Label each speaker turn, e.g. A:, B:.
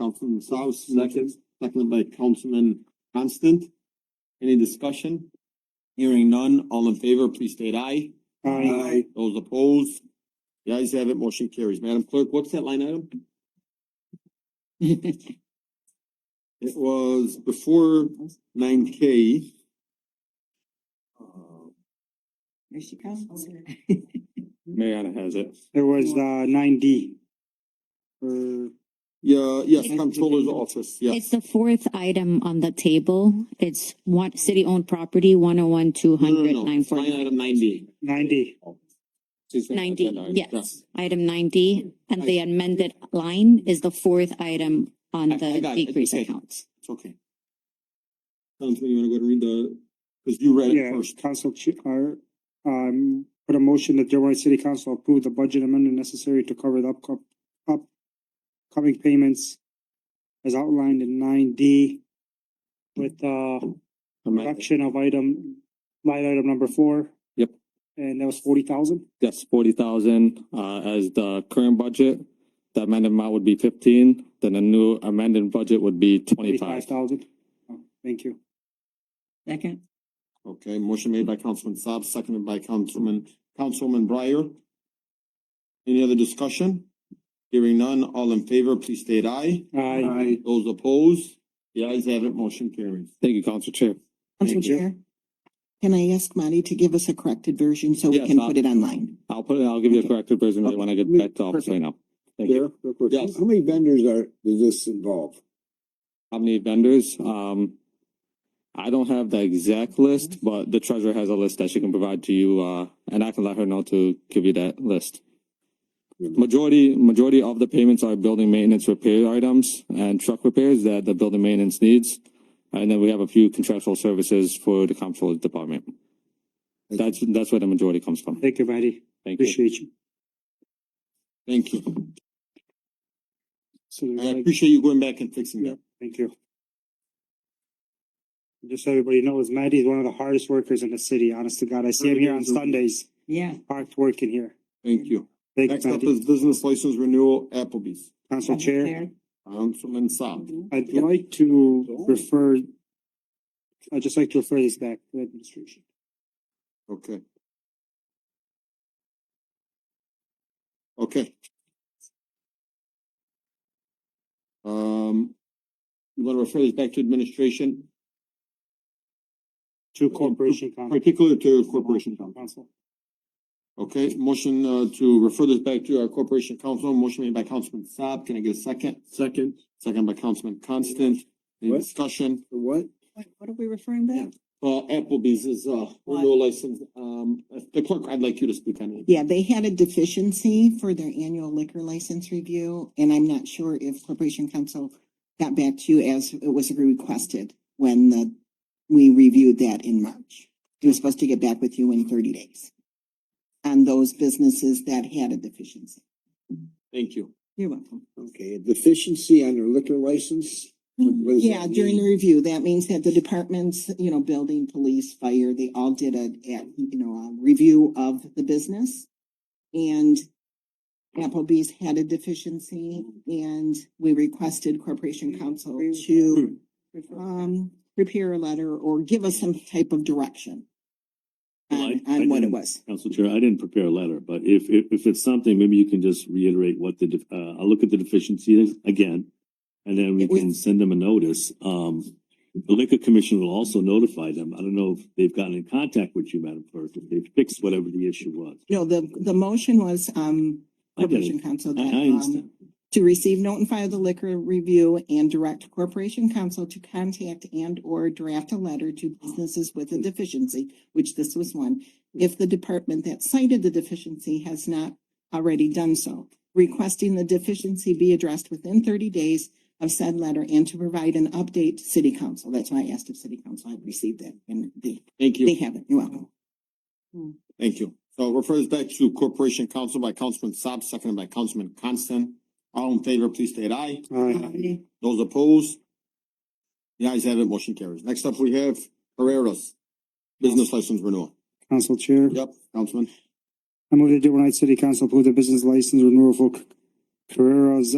A: Councilman South, second, seconded by Councilman Constant. Any discussion? Hearing none, all in favor, please state aye.
B: Aye.
A: Those opposed? The ayes have it, motion carries. Madam Clerk, what's that line item? It was before nine K.
C: There she comes.
A: Mariana has it.
B: There was, uh, nine D. Uh, For,
A: Yeah, yes, Controller's Office, yes.
D: It's the fourth item on the table. It's one, city-owned property, one oh one, two
A: No, no,
D: hundred,
A: no,
D: nine
A: it's Line
D: forty.
A: item ninety.
B: nine D.
A: She's saying
D: Ninety,
A: agenda item, yeah.
D: yes, item ninety, and the amended line is the fourth item on
A: I- I
D: the
A: got it.
D: decrease
A: Okay.
D: accounts.
A: It's okay. Councilman, you wanna go ahead and read the, cause you read it
B: Yeah,
A: first.
B: council chair, uh, um, put a motion that Dearborn City Council approve the budget amendment necessary to cover the upco- upcoming payments as outlined in nine D with, uh,
A: Amendment.
B: reduction of item, line item number four.
E: Yep.
B: And that was forty thousand?
E: Yes, forty thousand, uh, as the current budget. The amended amount would be fifteen, then the new amended budget would be twenty-five.
B: thousand. Oh, Thank you.
C: Second.
A: Okay, motion made by Councilman Saab, seconded by Councilman, Councilwoman Breyer. Any other discussion? Hearing none, all in favor, please state aye.
B: Aye.
A: Those opposed, the ayes have it, motion carries.
E: Thank you, Council Chair.
F: Council
A: Thank you.
F: Chair, can I ask Marty to give us a corrected version so we
E: Yes,
F: can
E: I'll-
F: put it online?
E: I'll put, it- I'll give you a corrected version when I get back to office right now. Thank you.
A: Yes.
G: How many vendors are, does this involve?
E: How many vendors? Um, I don't have the exact list,
A: Mm-hmm.
E: but the treasurer has a list that she can provide to you, uh, and I can let her know to give you that list.
A: Mm-hmm.
E: Majority, majority of the payments are building maintenance repair items and truck repairs that the building maintenance needs. And then we have a few contractual services for the comptroller's department. That's, that's where the majority comes from.
B: Thank you, Marty.
E: Thank you.
B: Appreciate you.
A: Thank you.
B: So there's
A: I
B: like-
A: appreciate you going back and fixing that.
B: Thank you. Just so everybody knows, Matty is one of the hardest workers in the city. Honest to God, I see him here on Sundays,
C: Yeah.
B: parked working here.
A: Thank you.
B: Thank you,
A: Next up
B: Matty.
A: is business license renewal Applebee's.
B: Council Chair,
A: Councilman Saab.
B: I'd like to refer, I'd just like to refer this back to the administration.
A: Okay. Okay. Um, you wanna refer this back to administration,
B: To Corporation Council.
A: particular to corporation council?
B: Council.
A: Okay, motion uh to refer this back to our corporation council, motion made by Councilman Saab, can I get a second? Second. Second by Councilman Constant, any
G: What?
A: discussion?
G: For what?
C: What, what are we referring back?
A: Uh, Applebee's is uh, renewal license, um, the clerk, I'd like you to speak on it.
F: Yeah, they had a deficiency for their annual liquor license review, and I'm not sure if Corporation Council got back to you as it was requested when the, we reviewed that in March. It was supposed to get back with you in thirty days on those businesses that had a deficiency.
A: Thank you.
F: You're welcome.
G: Okay, deficiency on their liquor license? What does that
F: Yeah, during the
G: mean?
F: review, that means that the departments, you know, building, police, fire, they all did a, a, you know, a review of the business. And Applebee's had a deficiency and we requested Corporation Council
H: Hmm.
F: to, um, prepare a letter or give us some type of direction
H: Well,
F: on,
H: I- I
F: on what it
H: didn't-
F: was.
H: Council Chair, I didn't prepare a letter, but if, if, if it's something, maybe you can just reiterate what the, def- uh, I'll look at the deficiencies again. And then we
F: We-
H: can send them a notice. Um, the liquor commission will also notify them. I don't know if they've gotten in contact with you, Madam Clerk, if they've fixed whatever the issue was.
F: No, the, the motion was, um,
H: I get
F: Corporation
H: it.
F: Council
H: I,
F: that,
H: I
F: um,
H: understand.
F: to receive, note and file the liquor review and direct Corporation Council to contact and or draft a letter to businesses with a deficiency, which this was one, if the department that cited the deficiency has not already done so, requesting the deficiency be addressed within thirty days of said letter and to provide an update to city council. That's why I asked if city council had received that and they,
A: Thank you.
F: they haven't. You're welcome.
A: Thank you. So it refers back to Corporation Council by Councilman Saab, seconded by Councilman Constant. All in favor, please state aye.
B: Aye.
A: Those opposed? The ayes have it, motion carries. Next up, we have Herrera's Business License Renewal.
B: Council Chair.
A: Yep, Councilman.
B: I move that Dearborn Heights City Council approve the business license renewal for Carrera's